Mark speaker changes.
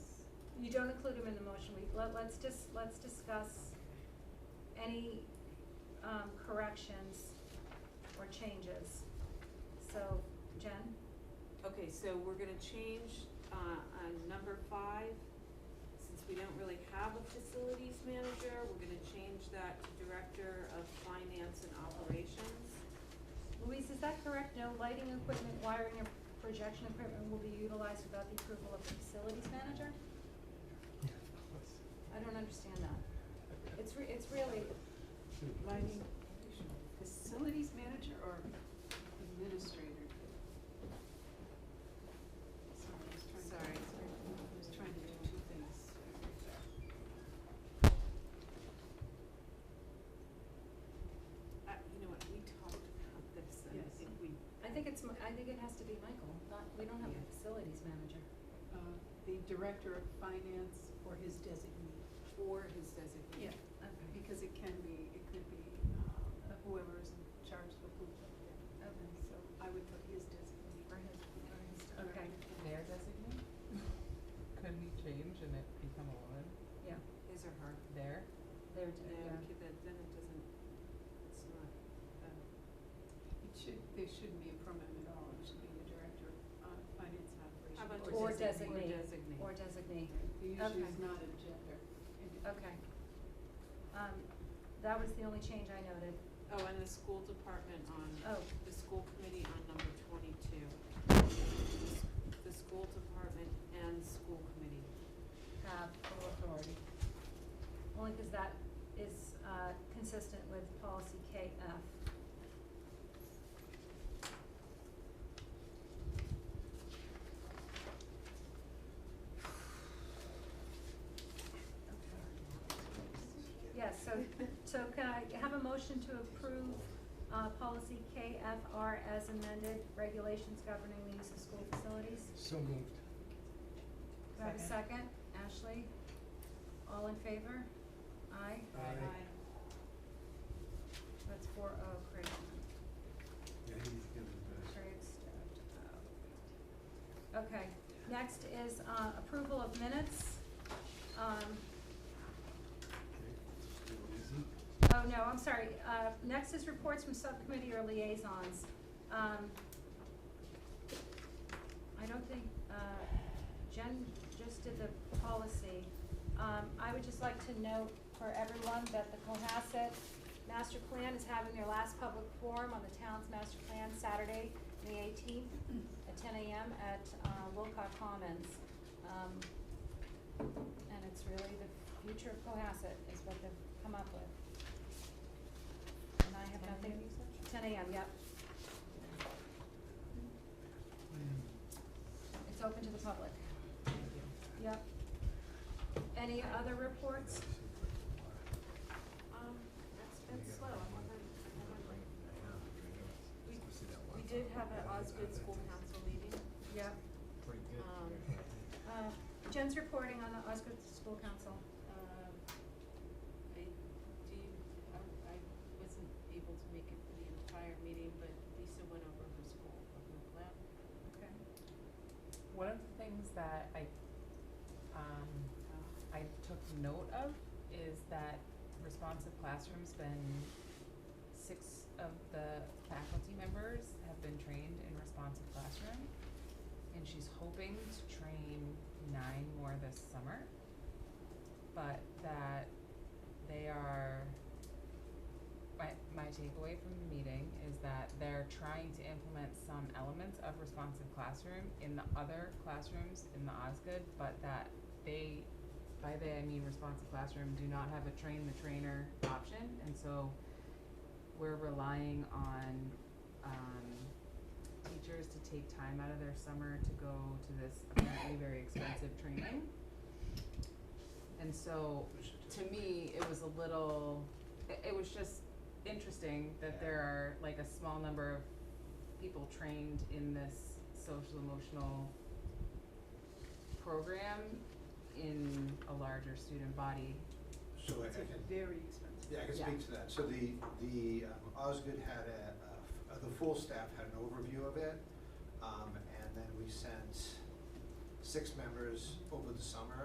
Speaker 1: you don't include them in the motion, we, let, let's just, let's discuss any, um, corrections or changes. So, Jen,
Speaker 2: Okay, so we're gonna change, uh, on number five, since we don't really have a facilities manager, we're gonna change that to director of finance and operations.
Speaker 1: Louise, is that correct? No lighting equipment, wiring, or projection equipment will be utilized without the approval of the facilities manager? I don't understand that. It's re- it's really,
Speaker 3: Lighting, facilities manager or administrator? Sorry, I was trying to.
Speaker 2: Sorry.
Speaker 3: I was trying to do two things.
Speaker 2: Uh, you know what, we talked about this, and I
Speaker 3: Yes.
Speaker 2: think we,
Speaker 1: I think it's, Mi- I think it has to be Michael, not, we don't have a facilities manager.
Speaker 3: Uh, the director of finance or his designee.
Speaker 2: or his designee.
Speaker 1: Okay,
Speaker 3: Because it can be, it could be, uh, whoever is in charge of who, yeah,
Speaker 1: okay.
Speaker 3: so I would put his designee.
Speaker 1: Or
Speaker 3: Uh,
Speaker 1: his, or his,
Speaker 3: All right.
Speaker 1: okay,
Speaker 4: Their designate? Could we change and it become a woman?
Speaker 1: yeah,
Speaker 2: His or her.
Speaker 4: There?
Speaker 1: there,
Speaker 2: No,
Speaker 1: yeah.
Speaker 2: okay, that, then it doesn't, it's not, uh,
Speaker 3: It should, there shouldn't be a pronoun at all, it should be the director of uh, finance and operations.
Speaker 2: how about
Speaker 1: Or
Speaker 2: just
Speaker 1: designate.
Speaker 2: Or designate.
Speaker 1: Or designate,
Speaker 3: The issue
Speaker 1: Okay.
Speaker 3: is not a gender. and-
Speaker 1: okay. Um, that was the only change I noted.
Speaker 2: Oh, and the school department on,
Speaker 1: Oh,
Speaker 2: the school committee on number twenty-two. The school department and school committee.
Speaker 1: have full authority. Only because that is, uh, consistent with policy KF. Yes, so, so can I have a motion to approve, uh, policy KFR as amended, regulations governing the use of school facilities?
Speaker 5: So moved.
Speaker 1: Do I have a second? Ashley? All in favor? Aye?
Speaker 5: Aye.
Speaker 1: That's four oh, great.
Speaker 5: Yeah, he's good at that.
Speaker 1: Sherry abstained. Oh. Okay, next is, uh, approval of minutes. Um,
Speaker 5: Okay. Little easy.
Speaker 1: Oh, no, I'm sorry. Uh, next is reports from subcommittee or liaisons. Um, I don't think, uh, Jen just did the policy. Um, I would just like to note for everyone that the Cohasset Master Plan is having their last public forum on the town's master plan Saturday, May eighteenth, at ten AM at, uh, Wilcox Commons. Um, and it's really the future of Cohasset is what they've come up with. And I have nothing, ten AM, yep. It's open to the public. Yep. Any other reports?
Speaker 2: Um, that's been slow, I haven't, I haven't, we, we did have an Osgood School Council meeting.
Speaker 1: Yep.
Speaker 5: Pretty good.
Speaker 2: um,
Speaker 1: Uh, Jen's reporting on the Osgood School Council.
Speaker 2: Um, I, do you, I, I wasn't able to make it for the entire meeting, but Lisa went over her school, over the lab.
Speaker 1: Okay.
Speaker 4: One of the things that I, um, I took note of is that responsive classrooms, then six of the faculty members have been trained in responsive classroom. And she's hoping to train nine more this summer. But that they are, my, my takeaway from the meeting is that they're trying to implement some elements of responsive classroom in the other classrooms in the Osgood, but that they, by they, I mean responsive classroom, do not have a train the trainer option, and so we're relying on, um, teachers to take time out of their summer to go to this apparently very expensive training. And so to me, it was a little, it, it was just interesting that there are like a small number of people trained in this social emotional program in a larger student body.
Speaker 6: So I I
Speaker 3: It's a
Speaker 6: can,
Speaker 3: very expensive.
Speaker 6: yeah, I can
Speaker 4: Yeah.
Speaker 6: speak to that. So the, the um, Osgood had a, a f- uh, the full staff had an overview of it. Um, and then we sent six members over the summer